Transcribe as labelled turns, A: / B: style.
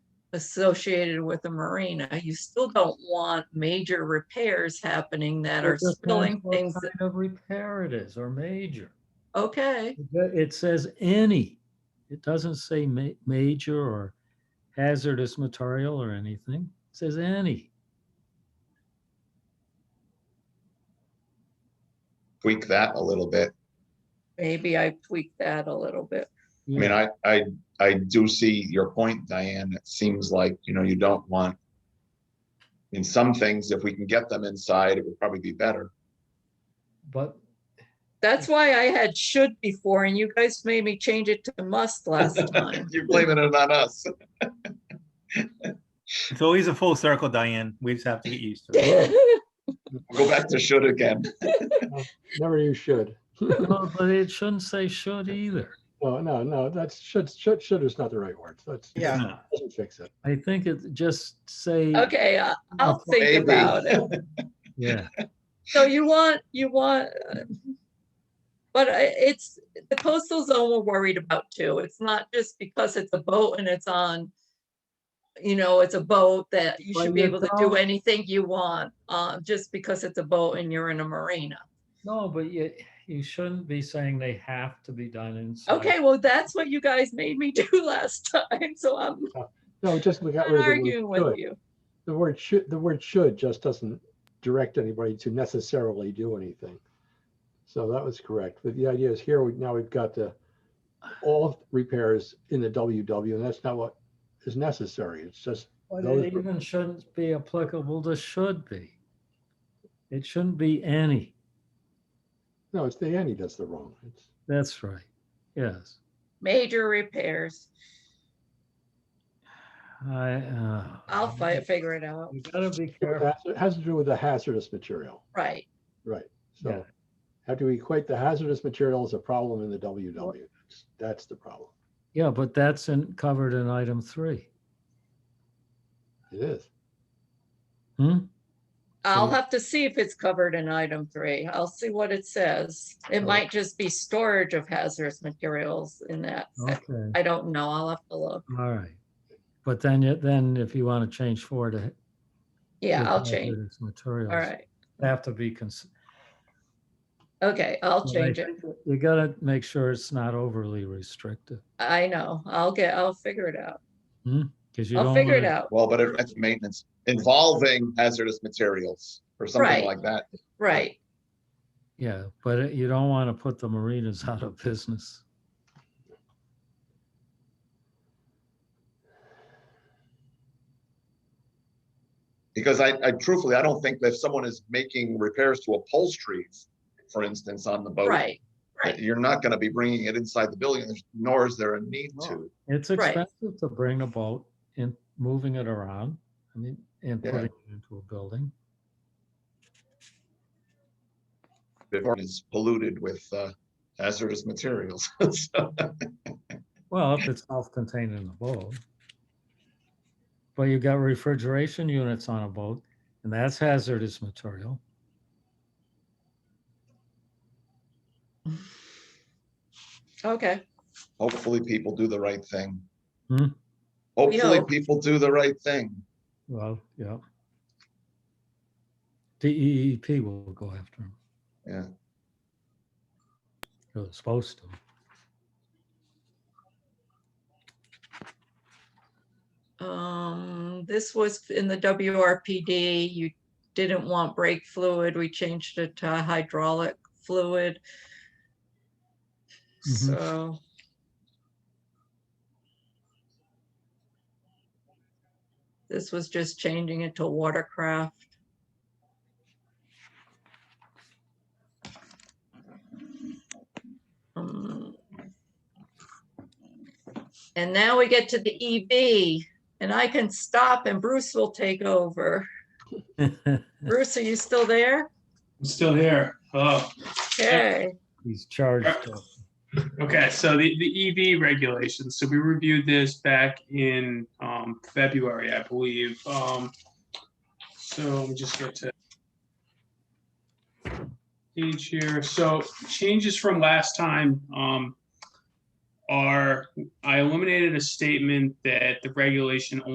A: associated with a marina, you still don't want major repairs happening that are
B: It depends
A: spilling
B: what
A: things. that-
B: kind Of repair it is or major.
A: Okay,
B: It says any. It doesn't say ma- major or hazardous material or anything. It says any.
C: tweak that a little bit.
A: maybe I tweaked that a little bit.
C: I mean, I, I, I do see your point, Diane. It seems like, you know, you don't want. In some things, if we can get them inside, it would probably be better.
B: But
A: That's why I had should before and you guys made me change it to must last time.
C: You're blaming it on us.
D: It's always a full circle, Diane. We just have to get used to it.
C: Go back to should again.
E: Never use should.
B: no, but it shouldn't say should either.
E: No, no, no, that's, should, should, should is not the right word. That's,
F: Yeah.
D: No.
E: doesn't fix it.
B: I think it just say.
A: Okay, I- I'll
C: Maybe.
A: think about it.
B: Yeah,
A: So you want, you want, uh, but I- it's, the coastal zone we're worried about too. It's not just because it's a boat and it's on, you know, it's a boat that you
B: Well,
A: should be
B: you're
A: able to do
B: down-
A: anything you want, uh, just because it's a boat and you're in a marina.
B: no, but you, you shouldn't be saying they have to be done inside.
A: Okay, well, that's what you guys made me do last time, so I'm
E: No, just we got
A: not
E: rid of the
A: arguing
E: word
A: with
E: should.
A: you.
E: The word should, the word should just doesn't direct anybody to necessarily do anything. So that was correct. But the idea is here, we- now we've got the, all repairs in the WW, and that's not what is necessary. It's just,
B: But
E: Those
B: it
E: were-
B: even shouldn't be applicable to should be. It shouldn't be any.
E: no, it's the Annie that's the wrong. It's,
B: That's right. Yes.
A: Major repairs.
B: I, uh.
A: I'll fi- figure it out.
B: You gotta be careful.
E: it has to do with the hazardous material,
A: Right.
E: right?
B: Yeah.
E: So how do we equate the hazardous material as a problem in the WW? That's- That's the problem.
B: Yeah, but that's in, covered in item three.
E: It is.
B: Hmm?
A: I'll
E: So-
A: have to see if it's covered in item three. I'll see what it says. It
E: Oh.
A: might just be storage of hazardous materials in that.
B: Oh.
A: sec-
B: Okay,
A: I don't know. I'll have to look.
B: all right. But then, you- then if you want to change four to. h-
A: Yeah,
B: to
A: I'll change.
B: hazardous Materials.
A: All right.
B: Have to be, cons-
A: Okay, I'll
B: Well, I
A: change it.
B: you gotta make sure it's not overly restrictive,
A: I know. I'll get, I'll figure it out.
B: because you don't.
A: I'll figure it
B: wanna-
A: out.
C: Well, but if it's maintenance involving hazardous materials or something
A: Right.
C: like that.
A: Right.
B: Yeah, but it- you don't want to put the marinas out of business.
C: Because I, I truthfully, I don't think that if someone is making repairs to upholstery, for instance, on the boat.
A: Right. right.
C: You're not gonna be bringing it inside the building, there's- nor is there a need to.
B: It's
A: Right.
B: expensive to bring a boat and moving it around, I mean, and
C: Yeah.
B: putting it into a building.
C: It is polluted with uh, hazardous materials. So,
B: Well, if it's self-contained in the boat. But you got refrigeration units on a boat, and that's hazardous material.
A: Okay.
C: Hopefully, people do the right thing.
B: Hmm.
C: Hopefully,
A: Yeah.
C: people do the right thing.
B: Well, yeah. DEEP will go after them.
C: Yeah.
B: They're supposed to.
A: Um, this was in the WRPD. You didn't want brake fluid. We changed it to hydraulic fluid.
B: Mhm.
A: So. This was just changing it to watercraft. Um, And now we get to the E EV and I can stop and Bruce will take over. Bruce, are you still there?
G: I'm still here. Oh,
A: Okay.
B: He's charged up.
G: okay. So the, the EV regulations. So we reviewed this back in um, February, I believe. Um, so let me just get to page here. So changes from last time um, are I eliminated a statement that the regulation